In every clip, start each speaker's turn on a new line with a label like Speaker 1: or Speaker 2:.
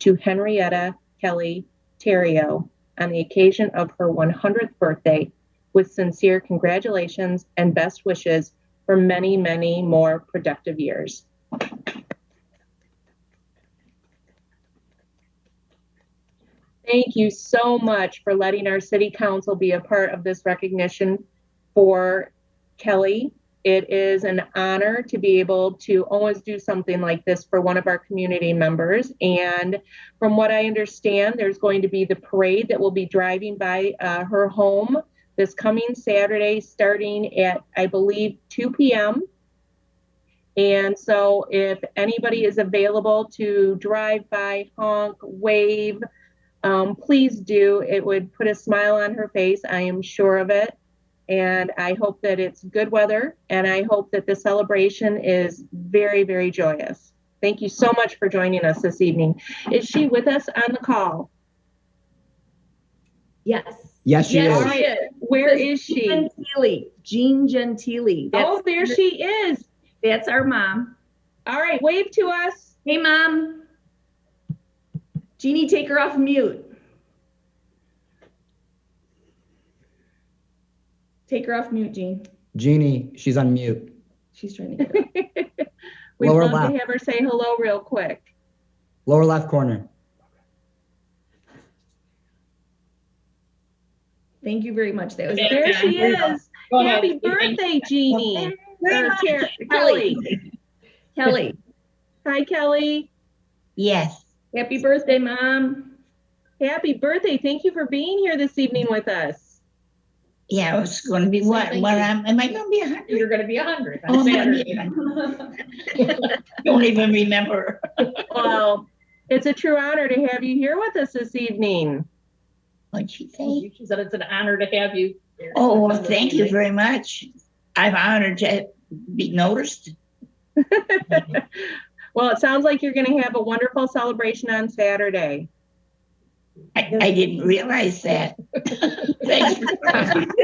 Speaker 1: to Henrietta Kelly Terrio on the occasion of her 100th birthday with sincere congratulations and best wishes for many, many more productive years. Thank you so much for letting our city council be a part of this recognition for Kelly. It is an honor to be able to always do something like this for one of our community members. And from what I understand, there's going to be the parade that will be driving by uh, her home this coming Saturday, starting at, I believe, 2 p.m. And so if anybody is available to drive by, honk, wave, um, please do. It would put a smile on her face. I am sure of it. And I hope that it's good weather. And I hope that the celebration is very, very joyous. Thank you so much for joining us this evening. Is she with us on the call?
Speaker 2: Yes.
Speaker 3: Yes, she
Speaker 1: Yes.
Speaker 3: is.
Speaker 1: Alright. Where is
Speaker 2: Jean
Speaker 1: she?
Speaker 2: Gentili. Jean Gentili. That's,
Speaker 1: Oh, there she is.
Speaker 2: that's our mom.
Speaker 1: All right, wave to us.
Speaker 2: Hey, mom. Jeannie, take her off mute. Take her off mute, Jean.
Speaker 3: Jeannie, she's on mute.
Speaker 2: She's trying to get her. off.
Speaker 1: We'd
Speaker 3: Lower
Speaker 1: love
Speaker 3: left.
Speaker 1: to have her say hello real quick.
Speaker 3: Lower left corner.
Speaker 2: Thank you very much. That was
Speaker 1: There she is.
Speaker 4: Go ahead.
Speaker 1: Happy birthday, Jeannie. Or Ter- Kelly.
Speaker 2: Kelly. Kelly.
Speaker 1: Hi, Kelly.
Speaker 4: Yes.
Speaker 2: Happy birthday, mom.
Speaker 1: Happy birthday. Thank you for being here this evening with us.
Speaker 4: Yeah, it's going to be what? What am, am I going to be a hundred?
Speaker 5: You're gonna be a hundred
Speaker 4: Oh,
Speaker 5: on
Speaker 4: man.
Speaker 5: Saturday.
Speaker 4: Don't even remember.
Speaker 1: Well, it's a true honor to have you here with us this evening.
Speaker 4: What'd she say?
Speaker 5: She said it's an honor to have you. here.
Speaker 4: Oh, well, thank you very much. I'm honored to be noticed.
Speaker 1: Well, it sounds like you're going to have a wonderful celebration on Saturday.
Speaker 4: I, I didn't realize that. Thanks. for-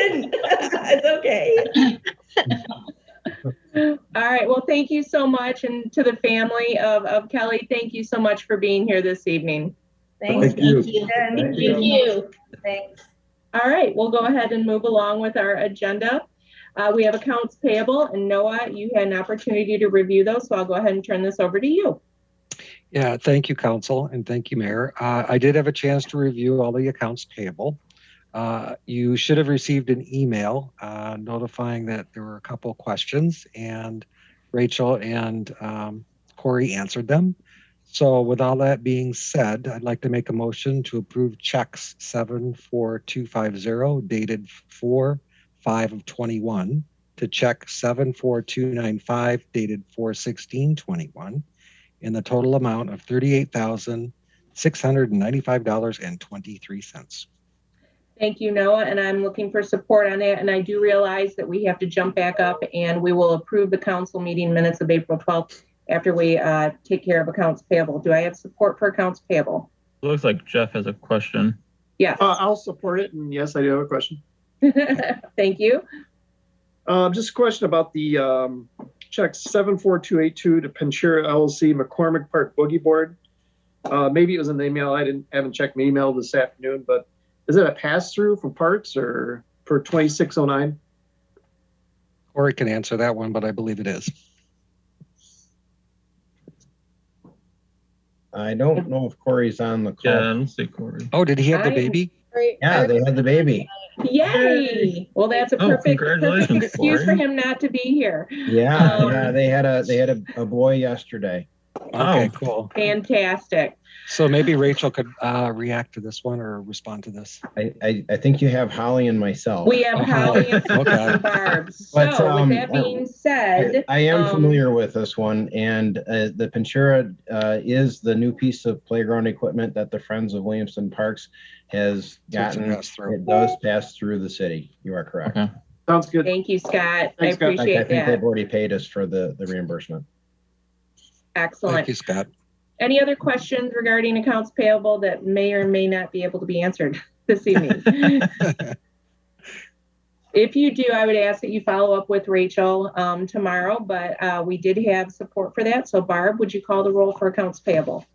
Speaker 2: it's okay.
Speaker 1: All right. Well, thank you so much. And to the family of, of Kelly, thank you so much for being here this evening.
Speaker 2: Thanks.
Speaker 3: Thank you.
Speaker 2: Jen.
Speaker 3: Thank
Speaker 5: Thank you.
Speaker 2: Thanks.
Speaker 1: All right, we'll go ahead and move along with our agenda. Uh, we have accounts payable and Noah, you had an opportunity to review those, so I'll go ahead and turn this over to you.
Speaker 6: Yeah, thank you, council, and thank you, mayor. Uh, I did have a chance to review all the accounts payable. Uh, you should have received an email uh, notifying that there were a couple questions, and Rachel and um, Corey answered them. So, with all that being said, I'd like to make a motion to approve checks 74250 dated 4 5 of 21 to check 74295 dated 4 16 21 in the total amount of thirty-eight thousand six hundred and ninety-five dollars and twenty-three cents.
Speaker 1: Thank you, Noah, and I'm looking for support on that. And I do realize that we have to jump back up and we will approve the council meeting minutes of April 12th after we uh, take care of accounts payable. Do I have support for accounts payable?
Speaker 7: It looks like Jeff has a question.
Speaker 1: Yes.
Speaker 8: Uh, I'll support it, and yes, I do have a question.
Speaker 1: Thank you.
Speaker 8: Uh, just a question about the, um, check seven four two eight two to Panchira LLC McCormick Park Boogie Board. Uh, maybe it was in the email, I didn't, haven't checked my email this afternoon, but is it a pass-through for parts or for twenty-six oh nine?
Speaker 6: Corey can answer that one, but I believe it is.
Speaker 9: I don't know if Corey's on the
Speaker 7: Yeah, I
Speaker 9: call.
Speaker 7: don't see Corey.
Speaker 6: Oh, did he have the
Speaker 1: I-
Speaker 6: baby?
Speaker 9: Yeah, they had the baby.
Speaker 1: Yay! Well, that's a
Speaker 7: Oh,
Speaker 1: perfect, perfect
Speaker 7: congratulations,
Speaker 1: excuse for
Speaker 7: Lauren.
Speaker 1: him not to be here.
Speaker 9: Yeah,
Speaker 1: Um,
Speaker 9: yeah, they had a, Uh, they had a, a boy yesterday.
Speaker 6: Okay,
Speaker 7: Oh.
Speaker 6: cool.
Speaker 1: Fantastic.
Speaker 6: So maybe Rachel could uh, react to this one or respond to this.
Speaker 9: I, I, I think you have Holly and myself.
Speaker 1: We have
Speaker 6: Uh-huh.
Speaker 1: Holly and Susan
Speaker 6: Okay.
Speaker 1: and Barb.
Speaker 9: oh, But,
Speaker 1: So
Speaker 9: um,
Speaker 1: with that being
Speaker 9: I
Speaker 1: said,
Speaker 9: I am
Speaker 1: um,
Speaker 9: familiar with this one, and uh, the Pinchura uh, is the new piece of playground equipment that the Friends of Williamson Parks has
Speaker 6: So it's a
Speaker 9: gotten.
Speaker 6: pass-through.
Speaker 9: It does pass through the city. You are correct.
Speaker 7: Okay.
Speaker 8: Sounds good.
Speaker 1: thank you, Scott. I
Speaker 8: Thanks, Scott.
Speaker 9: Like, I
Speaker 1: appreciate
Speaker 9: think
Speaker 1: that.
Speaker 9: they've already paid us for the, the reimbursement.
Speaker 6: Thank
Speaker 1: Excellent.
Speaker 6: you, Scott.
Speaker 1: Any other questions regarding accounts payable that may or may not be able to be answered this evening? If you do, I would ask that you follow up with Rachel um, tomorrow, but uh, we did have support for that. So Barb, would you call the roll for accounts payable?